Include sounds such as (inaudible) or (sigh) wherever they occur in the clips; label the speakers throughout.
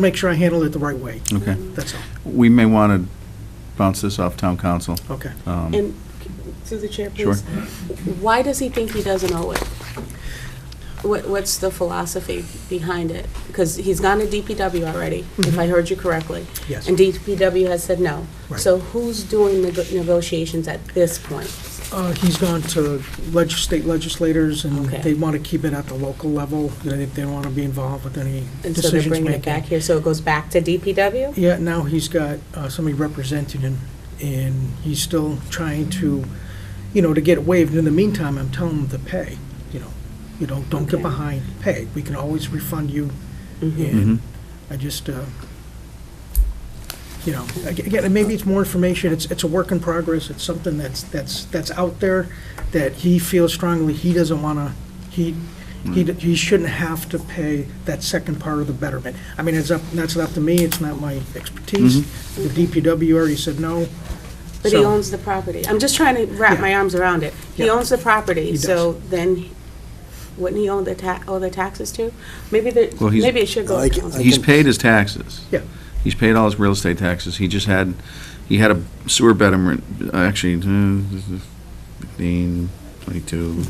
Speaker 1: make sure I handle it the right way,
Speaker 2: Okay.
Speaker 1: that's all,
Speaker 2: We may want to bounce this off town council.
Speaker 1: okay.
Speaker 2: Um,
Speaker 3: And, through the chair,
Speaker 2: Sure.
Speaker 3: please. Why does he think he doesn't owe it? What, what's the philosophy behind it? Because he's gone to DPW already, if I heard you correctly.
Speaker 1: Yes.
Speaker 3: And DPW has said no.
Speaker 1: Mm-hmm. Right.
Speaker 3: So who's doing the go- negotiations at this point?
Speaker 1: Uh, He's gone to leg- state legislators, and
Speaker 3: Okay.
Speaker 1: they want to keep it at the local level, they they don't want to be involved with any
Speaker 3: And so they're
Speaker 1: decisions
Speaker 3: bringing it back
Speaker 1: making.
Speaker 3: here, so it goes back to DPW?
Speaker 1: Yeah, now he's got uh, somebody representing him, and he's still trying to, you know, to get it waived. In the meantime, I'm telling him to pay, you know, you know, don't get
Speaker 3: Okay.
Speaker 1: behind, pay. We can always refund you,
Speaker 3: Mhm.
Speaker 2: Mhm.
Speaker 1: and I just, uh, you know, ag- again, maybe it's more information, it's, it's a work in progress, it's something that's, that's, that's out there that he feels strongly he doesn't want to, he, he,
Speaker 2: Hmm.
Speaker 1: d- he shouldn't have to pay that second part of the betterment. I mean, it's up, that's up to me, it's not my expertise.
Speaker 2: Mm-hmm.
Speaker 1: The DPW already said no.
Speaker 3: But he
Speaker 1: so-
Speaker 3: owns the property. I'm just trying to wrap
Speaker 1: Yeah.
Speaker 3: my arms around it. He
Speaker 1: Yeah.
Speaker 3: owns the
Speaker 1: He
Speaker 3: property,
Speaker 1: does.
Speaker 3: so then wouldn't he own the ta, owe the taxes too? Maybe the,
Speaker 2: Well, he's-
Speaker 3: maybe it should go
Speaker 4: I
Speaker 3: to
Speaker 4: ca-
Speaker 3: council.
Speaker 2: He's paid his taxes.
Speaker 1: Yeah.
Speaker 2: He's paid all his real estate taxes. He just had, he had a sewer betterment, actually, uh, 15, 22,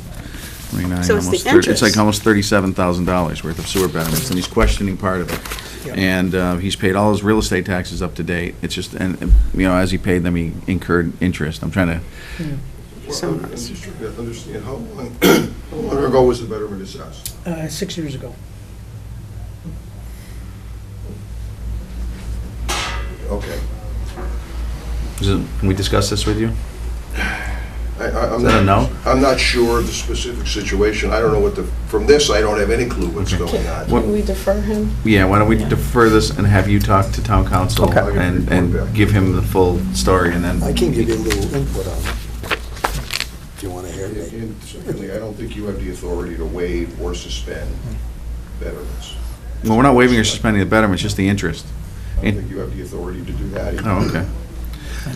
Speaker 2: 29,
Speaker 3: So it's
Speaker 2: almost
Speaker 3: the
Speaker 2: 30. It's like
Speaker 3: interest.
Speaker 2: almost $37,000 worth of sewer betterments, and he's questioning part of it.
Speaker 1: Yeah.
Speaker 2: And uh, he's paid all his real estate taxes up to date. It's just, and, and, you know, as he paid them, he incurred interest. I'm trying to,
Speaker 3: So-
Speaker 4: Well, I'm just trying to understand, how long,
Speaker 5: How long (clears throat) ago was the betterment assessed?
Speaker 1: Uh, six years ago.
Speaker 5: Okay.
Speaker 2: is it- can we discuss this with you?
Speaker 5: I- I- I'm
Speaker 2: Is that a
Speaker 5: not-
Speaker 2: no?
Speaker 5: I'm not sure of the specific situation. I don't know what the, from this, I don't have any clue what's going on.
Speaker 2: What-
Speaker 6: Can we defer him?
Speaker 2: Yeah, why don't we defer this and have you talk to town council
Speaker 5: Okay.
Speaker 2: and, and give him the full story and then.
Speaker 4: I can give you a little input on it, if you want to hear
Speaker 5: And-
Speaker 4: me.
Speaker 5: And secondly, I don't think you have the authority to waive or suspend betterments.
Speaker 2: Well, we're not waiving or suspending the betterment, it's just the interest.
Speaker 5: I don't think you have the authority to do that. either.
Speaker 2: Oh, okay.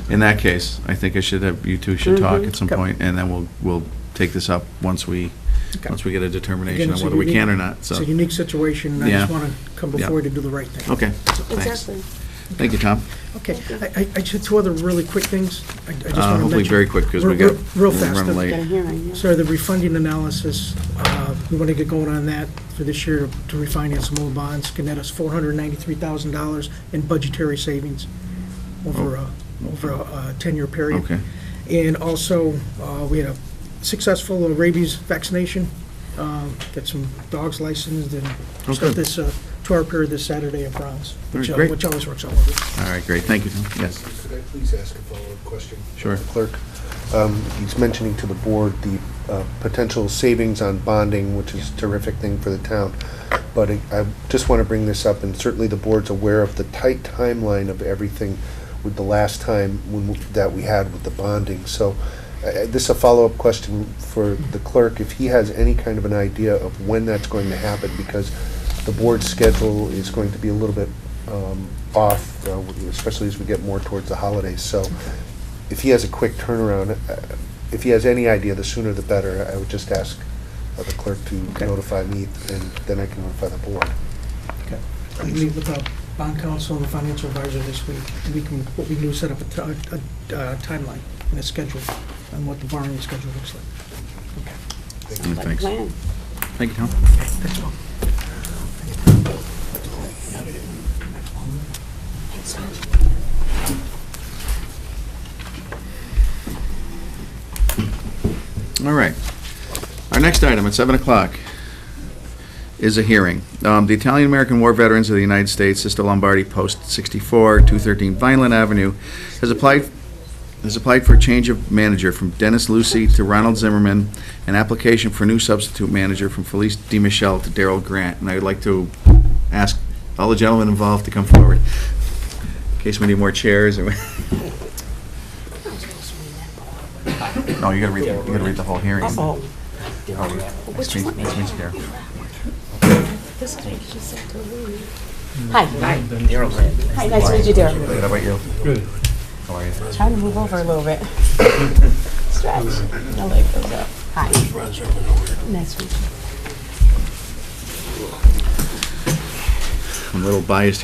Speaker 2: In that case, I think I should have, you two should talk at some
Speaker 1: Okay.
Speaker 2: point, and then we'll, we'll take this up once we,
Speaker 1: Okay.
Speaker 2: once we get a
Speaker 1: Again,
Speaker 2: determination on
Speaker 1: it's a
Speaker 2: whether we can or
Speaker 1: unique-
Speaker 2: not,
Speaker 1: It's
Speaker 2: so.
Speaker 1: a unique situation, and I just
Speaker 2: Yeah.
Speaker 1: want to come
Speaker 2: Yeah.
Speaker 1: before you to do the right thing.
Speaker 2: Okay, thanks.
Speaker 3: Exactly.
Speaker 2: Thank you, Tom.
Speaker 1: Okay, I, I- I just, two other really quick things. I I just want to
Speaker 2: Uh,
Speaker 1: mention.
Speaker 2: Hopefully very quick, because we
Speaker 1: Real-
Speaker 2: got.
Speaker 1: real- Real
Speaker 2: we're
Speaker 1: fast.
Speaker 2: running
Speaker 1: uh,
Speaker 2: late.
Speaker 3: Got a hearing, yeah.
Speaker 1: So the refunding analysis, uh, we want to get going on that for this year to refinance some old bonds, can net us $493,000 in budgetary savings over a, over a uh, 10-year period.
Speaker 2: Oh. Okay.
Speaker 1: And also, uh, we had a successful rabies vaccination, um, got some dogs licensed and
Speaker 2: Oh,
Speaker 1: start
Speaker 2: good.
Speaker 1: this uh, two-hour period this Saturday at Browns, which
Speaker 2: Very
Speaker 1: uh,
Speaker 2: great.
Speaker 1: which always works out well.
Speaker 2: All right, great, thank you, Tom. Yes,
Speaker 7: Could I please ask a follow-up question?
Speaker 2: Sure.
Speaker 7: Clerk, Um, he's mentioning to the board the uh, potential savings on bonding, which is a terrific thing for the town. But I- I just want to bring this up, and certainly the board's aware of the tight timeline of everything with the last time when we- that we had with the bonding. So uh, uh, this is a follow-up question for the clerk, if he has any kind of an idea of when that's going to happen, because the board's schedule is going to be a little bit um, off, uh, especially as we get more towards the holidays. So if he has a quick turnaround, uh, if he has any idea, the sooner the better. I would just ask uh, the clerk to
Speaker 1: Okay.
Speaker 7: notify me, and then I can notify the board.
Speaker 1: Okay. We meet with the bond counsel and the financial advisor this week. We can, what we can do is set up a ti- a uh, timeline and a schedule on what the borrowing schedule looks like.
Speaker 2: Mm,
Speaker 3: Like a
Speaker 2: thanks.
Speaker 3: plan.
Speaker 2: Thank you, Tom.
Speaker 1: That's all.
Speaker 2: All right. Our next item at 7 o'clock is a hearing. Um, The Italian-American War Veterans of the United States, Sister Lombardi, Post 64, 213 Vineland Avenue, has applied, has applied for a change of manager from Dennis Lucy to Ronald Zimmerman, an application for new substitute manager from Felice Di Michele to Daryl Grant. And I'd like to ask all the gentlemen involved to come forward, in case we need more chairs or... (laughs) No, you gotta read, the- you gotta read the whole hearing.
Speaker 3: Oh,
Speaker 2: Which one?
Speaker 3: this is what she said to Louis. Hi. Hi. Hi, nice to meet you, Daryl.
Speaker 2: How about you?
Speaker 3: Trying to move over a
Speaker 2: (laughs)
Speaker 3: little bit. Stretch. My leg goes up. Hi. Nice to meet you.
Speaker 2: I'm a little biased here.